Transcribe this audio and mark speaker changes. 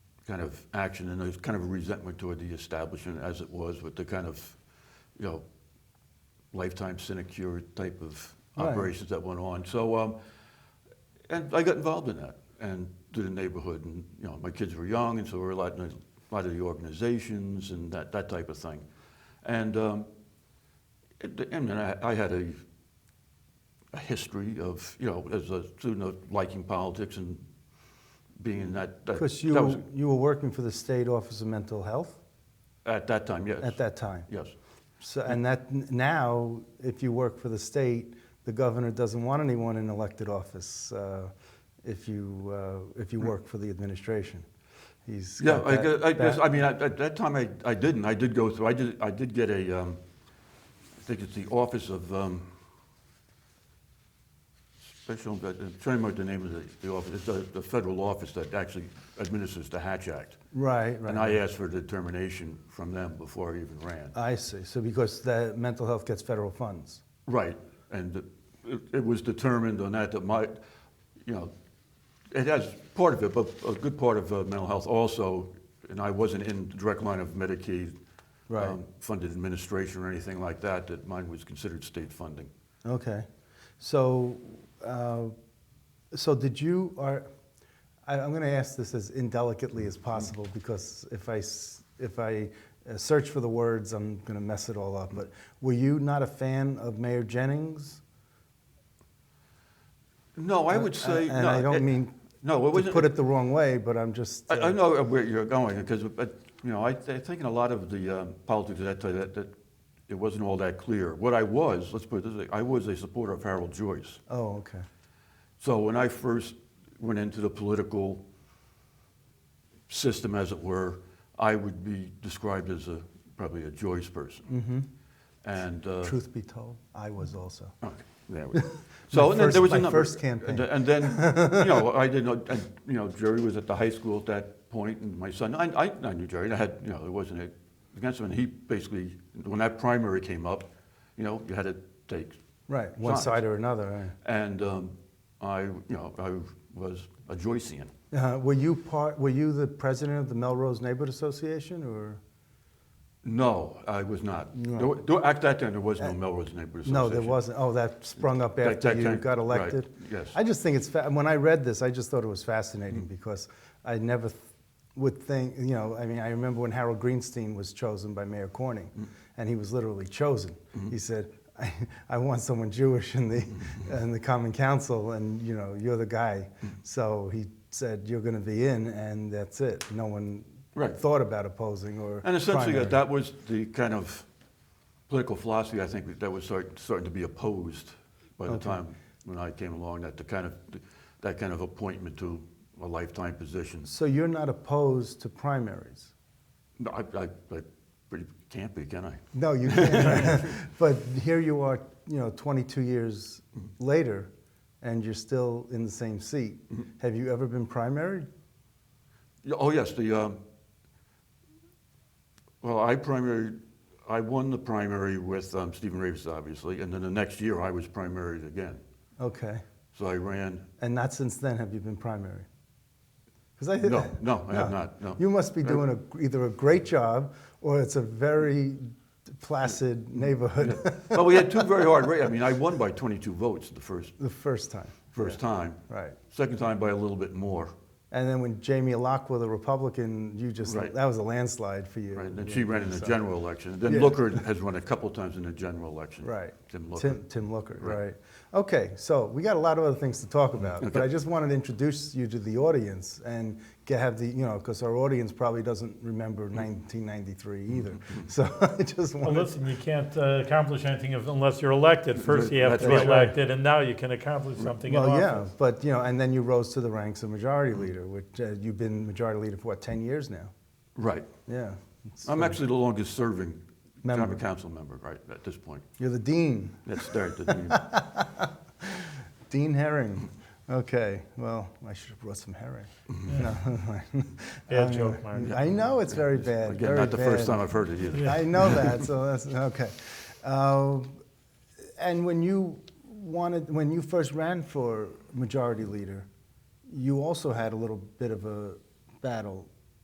Speaker 1: kind of action, and there's kind of a resentment toward the establishment as it was with the kind of, you know, lifetime sinecure type of
Speaker 2: Right.
Speaker 1: operations that went on. So, um, and I got involved in that and through the neighborhood, and you know, my kids were young, and so we were a lot in a lot of the organizations and that that type of thing, and um, it, I mean, I, I had a a history of you know as a student of liking politics and being in that. that-
Speaker 2: Chris, you,
Speaker 1: that was-
Speaker 2: were- you were working for the State Office of Mental Health
Speaker 1: at that time, yes.
Speaker 2: at that time.
Speaker 1: Yes.
Speaker 2: So, and that n- now, if you work for the state, the governor doesn't want anyone in elected office uh, if you uh, if you work for the administration. He's
Speaker 1: Hmm. Yeah,
Speaker 2: got
Speaker 1: I,
Speaker 2: that-
Speaker 1: gu- I guess,
Speaker 2: that-
Speaker 1: I mean, at, at that time, I, I didn't, I did go through, I did, I did get a, um, I think it's the Office of, um, Special, I'm trying to remember the name of the, the office, it's the, the federal office that actually administers the Hatch Act.
Speaker 2: right, right.
Speaker 1: And I uh, asked for determination from them before I even ran.
Speaker 2: I see. So because the mental health gets federal funds.
Speaker 1: Right, and it, it was determined on that that my, you know, it has part of it, but a good part of uh, mental health also, and I wasn't in direct line of Medicaid um,
Speaker 2: Right.
Speaker 1: funded administration or anything like that, that mine was considered state funding.
Speaker 2: Okay. So, uh, so did you are? I, I'm going to ask this as indelicately as possible
Speaker 1: Mm-hmm.
Speaker 2: because if I s- if I uh, search for the words, I'm going to mess it all up. But were you not a fan of Mayor Jennings? Uh,
Speaker 1: No, I would say,
Speaker 2: and
Speaker 1: no,
Speaker 2: I don't
Speaker 1: it-
Speaker 2: mean
Speaker 1: no, it
Speaker 2: to
Speaker 1: wasn't.
Speaker 2: put it the wrong way, but I'm just.
Speaker 1: I, I
Speaker 2: uh,
Speaker 1: know where you're going because, but you know, I, I think in a lot of the um, politics at that time that, that it wasn't all that clear. What I was, let's put it this way, I was a supporter of Harold Joyce.
Speaker 2: Oh, okay.
Speaker 1: So when I first went into the political system, as it were, I would be described as a probably a Joyce person. Mm-hmm. And uh,
Speaker 2: Truth be told, I was also.
Speaker 1: Okay, there we go. So and then
Speaker 2: first-
Speaker 1: there was a
Speaker 2: my
Speaker 1: number.
Speaker 2: first campaign.
Speaker 1: And then, and then, you know, I didn't know, and, you know, Jerry was at the high school at that point, and my son, I, I I knew Jerry, and I had, you know, it wasn't a- against him, and he basically, when that primary came up, you know, you had to take.
Speaker 2: Right, one
Speaker 1: sides.
Speaker 2: side or another.
Speaker 1: And um, I, you know, I was a Joycean.
Speaker 2: right. Uh, were you part? Were you the president of the Melrose Neighborhood Association, or
Speaker 1: No, I was not.
Speaker 2: No. Uh,
Speaker 1: There wa- there- at that time, there was no Melrose Neighborhood Association.
Speaker 2: no? There wasn't. Oh, that sprung up
Speaker 1: That-
Speaker 2: after
Speaker 1: that
Speaker 2: you
Speaker 1: came-
Speaker 2: got
Speaker 1: right,
Speaker 2: elected.
Speaker 1: yes. Mm-hmm.
Speaker 2: I just think it's fa- when I read this, I just thought it was fascinating because I never th- would think. You know, I mean, I remember when Harold Greenstein was chosen by Mayor Corning,
Speaker 1: Mm.
Speaker 2: and he was literally chosen.
Speaker 1: Mm-hmm.
Speaker 2: He said. I, I want someone Jewish in the
Speaker 1: Mm-hmm.
Speaker 2: in the Common Council, and you know you're the guy.
Speaker 1: Mm.
Speaker 2: So he said you're going to be in, and that's it. No one
Speaker 1: Right.
Speaker 2: thought about opposing or
Speaker 1: And essentially, uh,
Speaker 2: primary.
Speaker 1: that that was the kind of political philosophy, I think, that was start- starting to be opposed by the
Speaker 2: Okay.
Speaker 1: time when I came along, that the kind of, that kind of appointment to a lifetime position.
Speaker 2: So you're not opposed to primaries?
Speaker 1: No, I, I, I pretty- can't be, can I?
Speaker 2: No, you can't. but here you are, you know, 22 years later, and you're still in the same seat. Have you ever been primaried?
Speaker 1: Yeah, Oh, yes, the, um, well, I primary, I won the primary with um, Stephen Ravis, obviously, and then the next year I was primaried again.
Speaker 2: Okay.
Speaker 1: So I ran,
Speaker 2: And not since then have you been primaried? Because I
Speaker 1: No, no, I have not, no.
Speaker 2: You must be doing a, either a great job or it's a very placid neighborhood
Speaker 1: well, we had two very hard, ra- I mean, I won by 22 votes the first,
Speaker 2: the first time.
Speaker 1: first time.
Speaker 2: Right.
Speaker 1: Second time by a little bit more.
Speaker 2: And then when Jamie Lockwood, the Republican, you just,
Speaker 1: Right.
Speaker 2: that was a landslide for you.
Speaker 1: Right, and she ran in the
Speaker 2: So-
Speaker 1: general election. Then
Speaker 2: Yeah.
Speaker 1: Looker has run a couple times in the general election.
Speaker 2: Right.
Speaker 1: Tim Looker.
Speaker 2: Tim, Tim Looker,
Speaker 1: Right.
Speaker 2: right. Okay, so we got a lot of other things to talk about, but
Speaker 1: Okay.
Speaker 2: I just wanted to introduce you to the audience and get, have the, you know, because our audience probably doesn't remember
Speaker 1: Hmm.
Speaker 2: 1993 either. So I just
Speaker 3: Well,
Speaker 2: wanted,
Speaker 3: listen, you can't uh, accomplish anything if- unless you're elected. First, you have to be
Speaker 1: That's right.
Speaker 3: elected, and now you can accomplish something in
Speaker 2: well, yeah,
Speaker 3: office.
Speaker 2: but, you know, and then you rose to the ranks of majority
Speaker 1: Hmm.
Speaker 2: leader, which uh, you've been majority leader for what, 10 years now?
Speaker 1: Right.
Speaker 2: Yeah. It's-
Speaker 1: I'm actually the longest serving
Speaker 2: Member.
Speaker 1: common council member, right, at this point.
Speaker 2: You're the dean,
Speaker 1: That's there at the dean.
Speaker 2: Dean Herring. Okay, well, I should have brought some herring.
Speaker 1: Mm-hmm.
Speaker 2: No,
Speaker 3: Bad joke, Mark.
Speaker 2: I know it's very bad.
Speaker 1: Again,
Speaker 2: very
Speaker 1: not the
Speaker 2: bad.
Speaker 1: first time I've heard it either.
Speaker 2: I know that, so that's okay. Uh, and when you wanted, when you first ran for majority leader, you also had a little bit of a battle